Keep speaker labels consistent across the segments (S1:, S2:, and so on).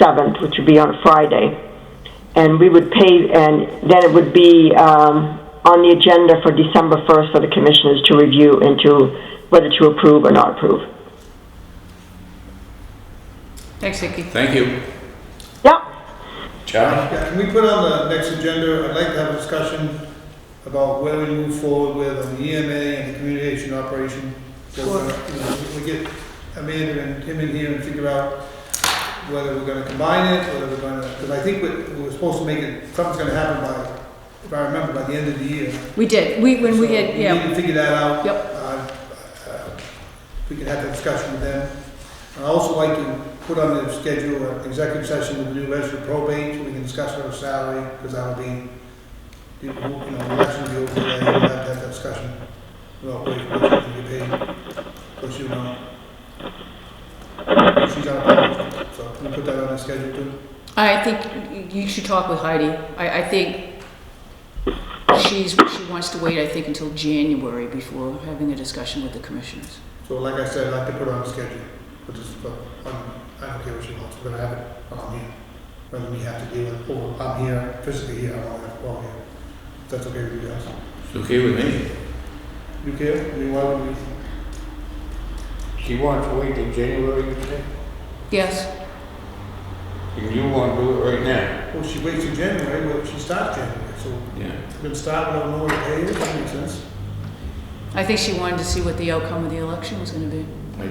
S1: seventh, which would be on a Friday. And we would pay, and then it would be um, on the agenda for December first for the commissioners to review and to, whether to approve or not approve.
S2: Thanks, Vicky.
S3: Thank you.
S1: Yep.
S3: John?
S4: Yeah, can we put on the next agenda, I'd like to have a discussion about where we move forward with on the EMA and the communication operation. So, uh, you know, We get Amanda and Tim in here and figure out whether we're gonna combine it, whether we're gonna, because I think we, we were supposed to make it, something's gonna happen by, if I remember, by the end of the year.
S2: We did, we, when we
S4: So
S2: get,
S4: We need
S2: yeah,
S4: to figure that out.
S2: Yep.
S4: Uh, uh, We can have that discussion with them. I'd also like to put on the schedule an executive session with the new registered probate, so we can discuss our salary, because that will be, you know, the election will be over there, we'll have that discussion. Well, wait, what you can get paid, plus you know. She's on a budget, so can we put that on the schedule too?
S2: I think you should talk with Heidi. I, I think she's, she wants to wait, I think, until January before having a discussion with the commissioners.
S4: So like I said, I'd like to put it on the schedule, but just, but I'm, I don't care what she wants, but I have it on here. Whether we have to deal with, or I'm here, physically here, I don't have to go here. If That's okay with you guys.
S3: It's okay with me.
S4: You care? I mean, why would we?
S5: She wants to wait till January, you say?
S2: Yes,
S5: And you want to do it right now?
S4: Well, she waits till January, well, she starts January, so
S3: Yeah.
S4: we can start, we don't know what the pay is, that makes sense.
S2: I think she wanted to see what the outcome of the election was gonna be.
S3: I, I
S4: Well,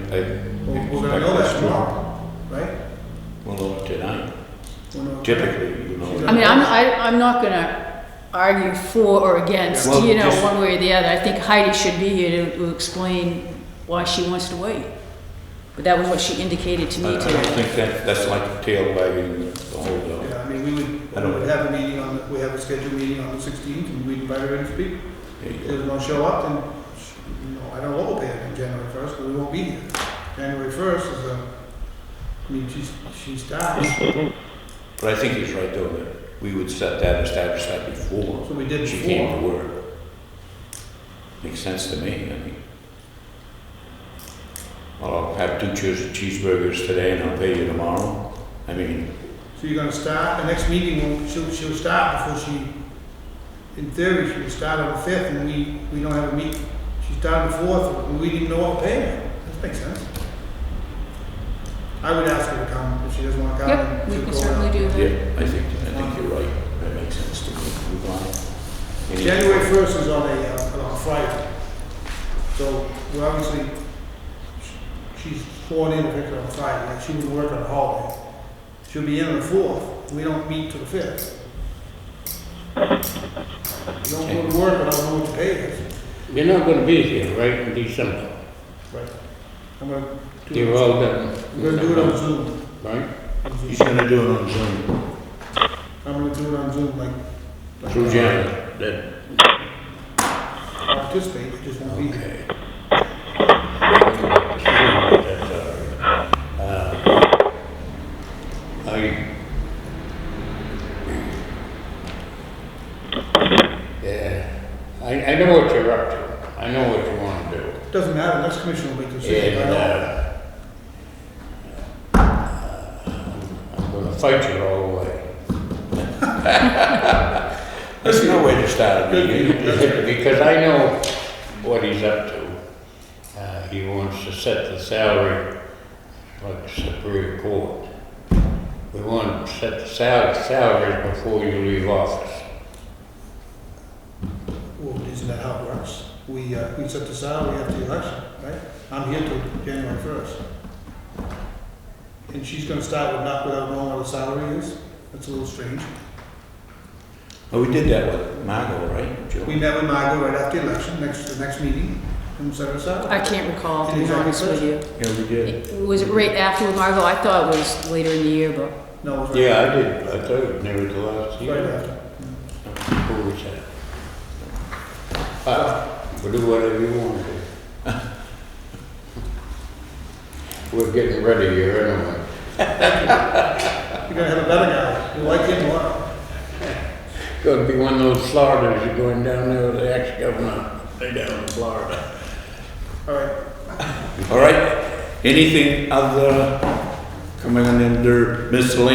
S3: expect
S4: we're gonna know
S3: that's
S4: that tomorrow, right?
S3: Well, no, tonight.
S4: We'll know.
S3: Typically, you know.
S2: I mean, I'm, I, I'm not gonna argue for or against,
S3: Well,
S2: you know,
S3: just-
S2: one way or the other. I think Heidi should be here to, to explain why she wants to wait. But that was what she indicated to
S3: Uh, I I
S2: me
S3: don't
S2: today.
S3: think that, that's like tail wagging the whole dog.
S4: Yeah, I mean, we would,
S3: I don't-
S4: we would have a meeting on, the- we have a scheduled meeting on the sixteenth, and we invite her in to speak.
S3: There you
S4: If
S3: go.
S4: they don't show up, then, you know, I don't know what they have on January first, because we won't be here. January first is a, I mean, she's, she starts,
S3: But I think he's right though, that we would set that, establish that before
S4: so we did
S3: she came
S4: before.
S3: to work. Makes sense to me, I mean. Well, I'll have two cheese- cheeseburgers today and I'll pay you tomorrow. I mean,
S4: So you're gonna start, the next meeting, will she'll, she'll start before she, in theory, she would start on the fifth, and we, we don't have a meet. She started the fourth, and we didn't know what pay her, that makes sense. I would ask her to come, if she doesn't wanna come.
S2: Yep, we
S4: she'll
S2: can
S4: go
S2: certainly
S4: out.
S2: do that.
S3: yeah, I think, I think you're right. That makes sense to me. Move on. Any-
S4: January first is on a, uh, on a Friday, so we're obviously, she's sworn in to pick her on Friday, like she would work on a holiday. She'll be in on the fourth, we don't meet till the fifth. You don't go to work, but I don't know what the pay is.
S5: You're not gonna be here, right, in December?
S4: Right. I'm gonna do
S5: You're
S4: it,
S5: all done.
S4: I'm gonna do it on Zoom.
S5: Right?
S3: He's gonna do it on Zoom.
S4: I'm gonna do it on Zoom, like. like,
S5: Through
S4: uh,
S5: January, then.
S4: Participate, I just won't be there.
S3: Okay.
S5: Uh, I. Yeah, I, I know what you're up to. I know what you wanna do.
S4: Doesn't matter, next commission will make the decision, I
S5: And,
S4: don't.
S5: uh, I'm gonna fight you all the way.
S3: That's no way to start a meeting.
S5: Because I know what he's up to. Uh, he wants to set the salary like the Superior Court. We want to set the sal- salaries before you leave office.
S4: Well, isn't that how it works? We, uh, we set the salary after the election, right? I'm here till January first. And she's gonna start with not without knowing what the salary is? That's a little strange.
S3: Well, Oh, we did that with Margot, right? Joe?
S4: We met with Margot right after the election, next, the next meeting, and set her
S2: I
S4: salary.
S2: can't recall, to be
S4: Exactly.
S2: honest with you.
S3: Yeah, we did.
S2: It- Was it right after Margot? I thought it was later in the year, but
S4: No, it was right.
S5: Yeah, I did, I thought it never the last
S4: Right
S5: year.
S4: after.
S5: Who was that? Uh, we'll do whatever you want to do. We're getting ready here anyway.
S4: You're gonna have a better guy, you like him more.
S5: Gonna be one of those Floridas you're going down there with the ex-governor. They down in Florida.
S4: All right,
S3: All right, anything other coming in under miscellaneous